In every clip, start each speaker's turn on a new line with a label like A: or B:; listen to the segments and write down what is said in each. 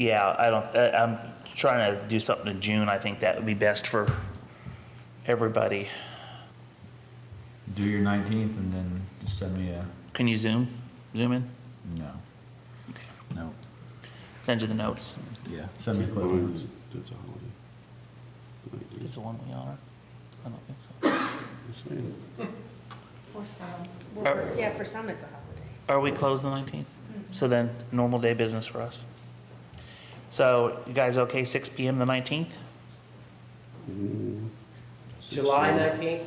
A: Yeah, I don't, I- I'm trying to do something in June. I think that would be best for everybody.
B: Do your nineteenth and then just send me a,
A: Can you zoom, zoom in?
B: no. No.
A: Send you the notes.
B: Yeah. Send me a clip
C: Well,
B: notes.
C: That's a holiday.
A: It's the one we honor? I don't think so.
C: Just saying.
D: For some,
A: Uh,
D: yeah, for some it's a holiday.
A: Are we closed the 19th? So then, normal day business for us. So you guys okay, 6 PM the 19th?
E: July nineteenth?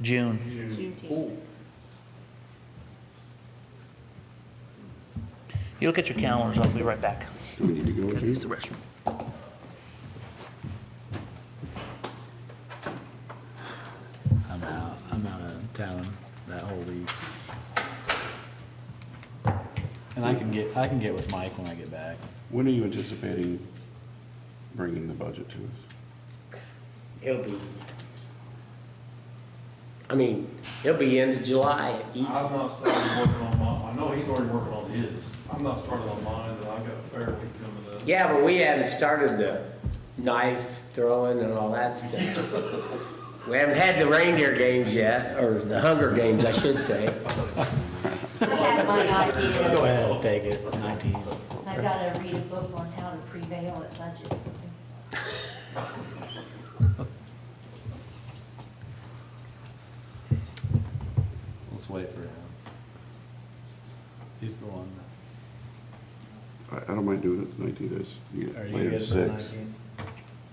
A: June.
D: Juneteenth.
A: You look at your calendars, I'll be right back.
C: Do we need to go?
A: Gotta
C: Jim?
A: use the restroom.
B: I'm out, I'm out of town that whole week. And I can get, I can get with Mike when I get back.
C: When are you anticipating bringing the budget to us?
E: It'll be, I mean, it'll be end of July, easy.
F: I've not started working on mine, I know he's already working on his, I'm not starting on mine, but I've got a fair week coming up.
E: Yeah, but we hadn't started the knife throwing and all that stuff. We haven't had the reindeer games yet, or the Hunger Games, I should say.
G: I had one idea.
B: ahead. Take it, nineteen.
G: I gotta read a book on how to prevail at budget.
B: Let's wait for him. He's the one.
C: I, I don't mind doing it the nineteenth, it's you know, later than six.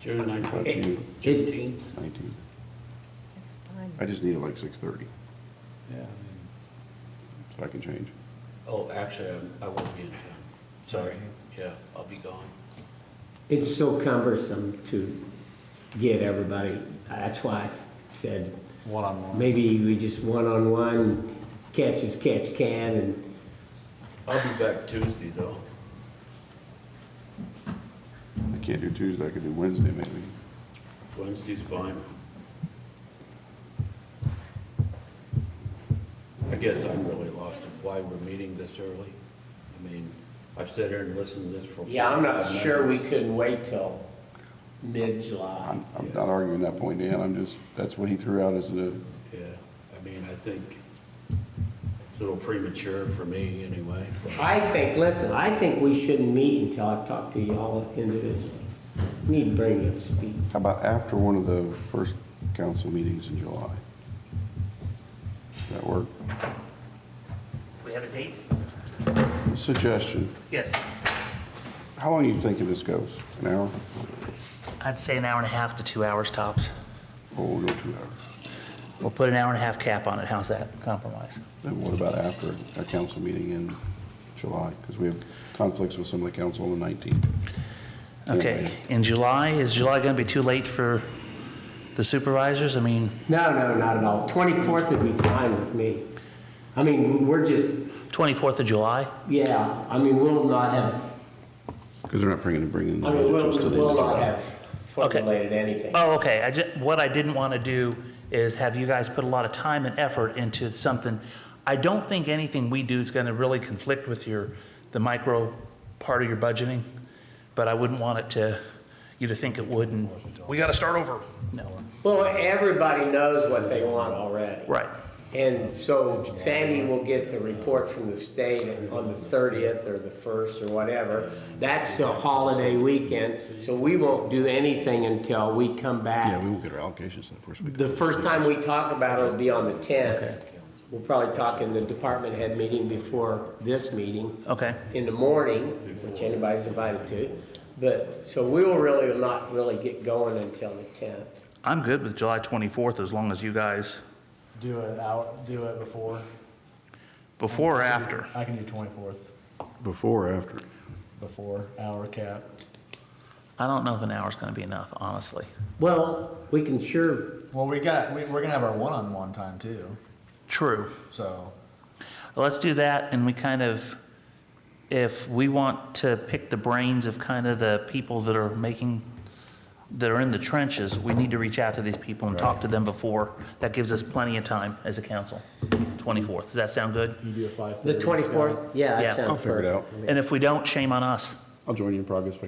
H: June
C: Up to you.
E: Juneteenth.
C: 19th.
D: It's fine.
C: I just need it like six thirty,
B: Yeah.
C: so I can change.
H: Oh, actually, I'm- I won't be in town. Sorry. Yeah, I'll be gone.
E: It's so cumbersome to get everybody, that's why I said,
B: One on one.
E: maybe we just one-on-one, catch as catch can, and
H: I'll be back Tuesday, though.
C: I can't do Tuesday, I could do Wednesday maybe.
H: Wednesday's fine. I guess I'm really lost of why we're meeting this early. I mean, I've sat here and listened to this for.
E: Yeah, I'm not
H: 45
E: sure we
H: minutes.
E: couldn't wait till mid-July.
C: I'm, I'm not arguing that point, Dan, I'm just, that's what he threw out as the,
H: Yeah, I mean, I think it's a little premature for me, anyway. but-
E: I think, listen, I think we shouldn't meet until I've talked to y'all individually. Need to bring you up to speed.
C: how about after one of the first council meetings in July? Does that work?
A: We have a date?
C: Suggestion,
A: Yes.
C: how long are you thinking this goes? An hour?
A: I'd say an hour and a half to two hours tops.
C: Or we'll go two hours?
A: We'll put an hour and a half cap on it. How's that compromise?
C: Then what about after a council meeting in July? Because we have conflicts with some of the council on the 19th.
A: Okay, in July, is July going to be too late for the supervisors? I mean,
E: No, no, not at all. 24th would be fine with me. I mean, we're just,
A: 24th of July?
E: yeah, I mean, we'll not have,
C: Because they're not bringing, bringing the
E: I
C: budget
E: mean, we'll,
C: to us till the end
E: we'll
C: of
E: not
C: July.
E: have formulated anything.
A: Oh, okay, I ju, what I didn't want to do is have you guys put a lot of time and effort into something. I don't think anything we do is going to really conflict with your, the micro part of your budgeting, but I wouldn't want it to, you to think it would, and we got to start over. No,
E: Well, everybody knows what they want already.
A: right.
E: And so Sandy will get the report from the state on the 30th or the 1st or whatever. That's a holiday weekend, so we won't do anything until we come
C: Yeah, we
E: back.
C: won't get our allocations in the first week.
E: The first time we talk about it will be on the 10th. We'll probably talk in the department head meeting before this meeting
A: Okay,
E: in the morning, which anybody's invited to. But, so we will really not really get going until the 10th.
A: I'm good with July 24th as long as you guys,
I: Do it out, do it before.
A: before or after?
I: I can do twenty-fourth,
C: Before or after?
I: before, hour cap.
A: I don't know if an hour's going to be enough, honestly.
E: Well, we can sure
I: Well, we got, we, we're gonna have our one-on-one time too,
A: True.
I: so.
A: Let's do that, and we kind of, if we want to pick the brains of kind of the people that are making, that are in the trenches, we need to reach out to these people and talk to them before. That gives us plenty of time as a council, 24th. Does that sound good?
I: You do a five
E: The
I: thirty.
E: 24th?
A: Yeah.
E: Yeah, that sounds
C: I'll figure it
E: perfect.
C: out.
A: And if we don't, shame on us.
C: I'll join you in progress if I